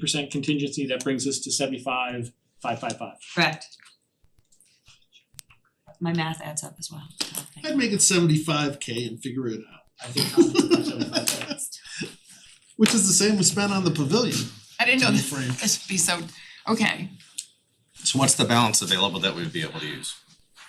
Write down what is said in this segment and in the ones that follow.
percent contingency, that brings us to seventy-five, five, five, five. Correct. My math adds up as well. so thank I'd you. make it seventy-five K and figure it out, I think I'll do that 75. which is the same we spent on the pavilion I didn't know time that frame. this would be so, okay, So what's the balance available that we'd be able to use?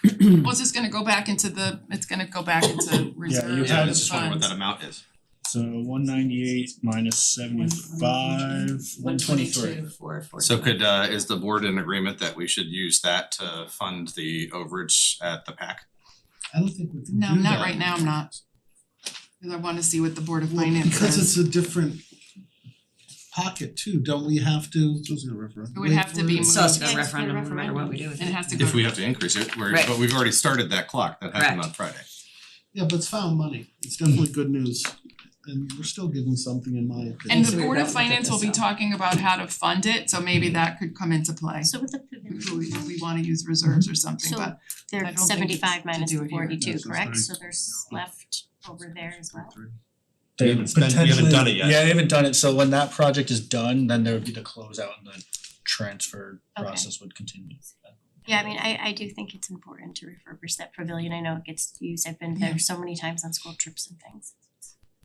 Hmm. well, it's just gonna go back into the, it's gonna go back into reserve you funds. Yeah, I have- was just wondering what that amount is. So one ninety-eight minus seventy-five, one twenty-three. 122, four, four, So two. could uh is the board in agreement that we should use that to fund the overage at the pack? I don't think we can No, do not that. right now, I'm not. Cause I wanna see what the Board of Well, Finance because says. it's a different pocket too, don't we have to, it was a referendum. It would have to be It's moved. still a Yeah, it's referendum, no matter what we do with And it it. has to go. If we have to increase it, we're Right. but we've already started that clock that happened on Friday. Yeah, but it's found money, it's definitely good news, and we're still giving something in my opinion. And So the we've Board got to of look at Finance will this be up. talking about how to fund it, so maybe Hmm. that could come into play. So with the If pavilion, we we wanna use reserves Hmm. or something, So- Mm-hmm. but I they're don't think it's seventy five to minus do it the here. forty No, two, so it's correct? thirty- So there's left over there as well. They haven't spent- we haven't done it yet. Yeah, they haven't done it, so when that project is done, then there would be the closeout and the transfer Okay. process would continue. Yeah, I mean, I I do think it's important to refurbish that pavilion. I know it gets used. I've been there so many times on school trips and things.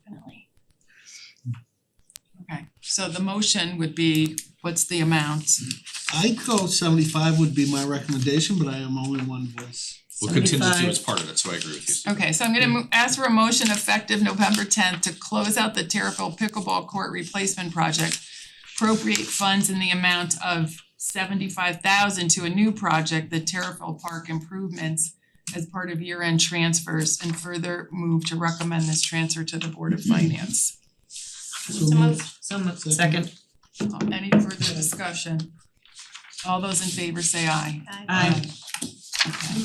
Definitely. Okay, so the motion would be, what's the amount? I'd go seventy-five would be my recommendation, but I am only one voice. Well, contingency was part of it, so I agree with you. Steve. Okay, so I'm gonna mo- ask for a motion effective November tenth to close out the Terriffill Pickleball Court Replacement Project. Appropriate funds in the amount of seventy-five thousand to a new project, the Terriffill Park Improvements as part of year-end transfers and further move to recommend this transfer to the Board of Finance. So moved. So moved. Second. Second. Um, Any further discussion? All those in favor say aye. Aye. Okay.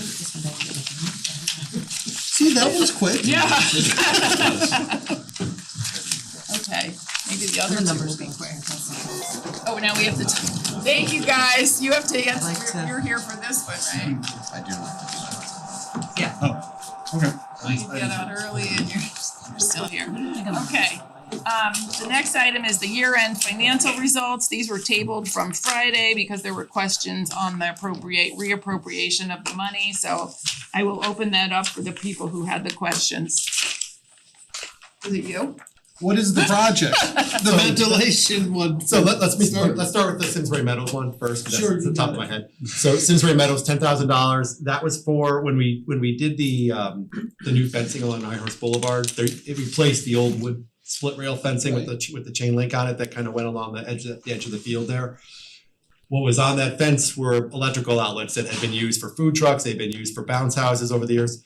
See, that was quick. Yeah. Okay, maybe the other two will be quick. Oh, now we have to, thank you guys, you have to Like answer, to- you're- you're here for this one, right? I do not. Well, You get out early and you're, you're still here. Okay, um, the next item is the year-end financial results, these were tabled from Friday because there were questions on the appropriate, reappropriation of the money, so I will open that up for the people who had the questions. Was it you? What is the project? The So- ventilation one. So let let's be, Start- let's start with the Simsbury Meadows one first, 'cause Sure, that's you the top of got my head. So Simsbury Meadows, ten thousand dollars, that was for when we when we did the um the new fencing along High Horse Boulevard, there it replaced the old wood split rail fencing with the ch- with the chain link on it that kind of went along the edge of the edge of the field there. What was on that fence were electrical outlets that had been used for food trucks, they've been used for bounce houses over the years.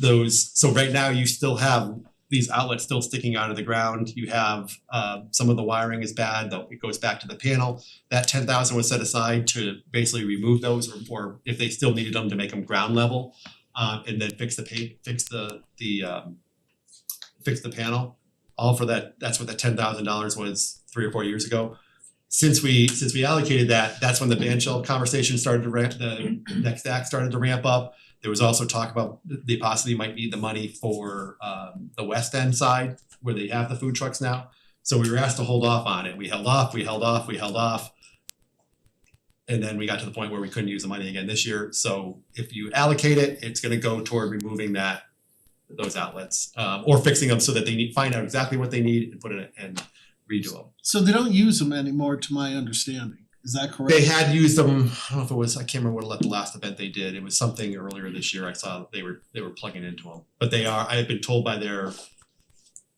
Those, so right now you still have these outlets still sticking out of the ground. You have uh some of the wiring is bad, though it goes back to the panel. That ten thousand was set aside to basically remove those or or if they still needed them to make them ground level. Uh and then fix the pa- fix the the um fix the panel. All for that, that's what the ten thousand dollars was three or four years ago. Since we since we allocated that, that's when the ban shell conversation started to ramp, the next act started to ramp up. There was also talk about th- they possibly might need the money for um the west end side where they have the food trucks now. So we were asked to hold off on it. We held off, we held off, we held off. And then we got to the point where we couldn't use the money again this year. So if you allocate it, it's gonna go toward removing that those outlets um or fixing them so that they need find out exactly what they need and put it in- and redo them. So they don't use them anymore, to my understanding. Is that correct? They had used them, I don't know if it was, I can't remember what the last event they did. It was something earlier this year. I saw that they were, they were plugging into them. But they are, I have been told by their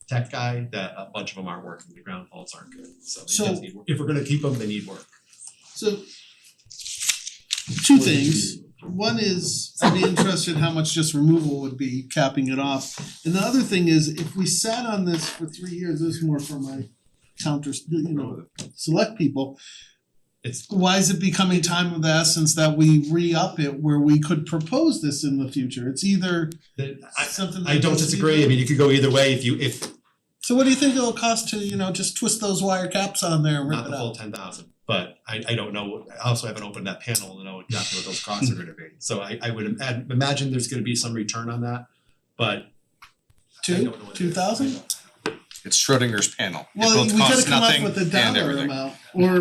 tech guy that a bunch of them aren't working. The ground faults aren't good. So So- they just need work. If we're gonna keep them, they need work. So two things. One is I'd be interested in how much just removal would be capping it off. And the other thing is if we sat on this for three years, this is more for my counters, you know, select people. It's- Why is it becoming time of the essence that we re-up it where we could propose this in the future? It's either They- I, something that I don't goes to the- disagree. I mean, you could go either way if you, if So what do you think it'll cost to, you know, just twist those wire caps on there and rip not it the full out? ten thousand, but I I don't know, I also haven't opened that panel to know exactly what those costs are gonna be. So I I would ima- imagine there's gonna be some return on that, but I Two? don't know what it is. Two thousand? It's Schrodinger's panel. It Well, both we gotta costs come up nothing with a and dollar everything. amount or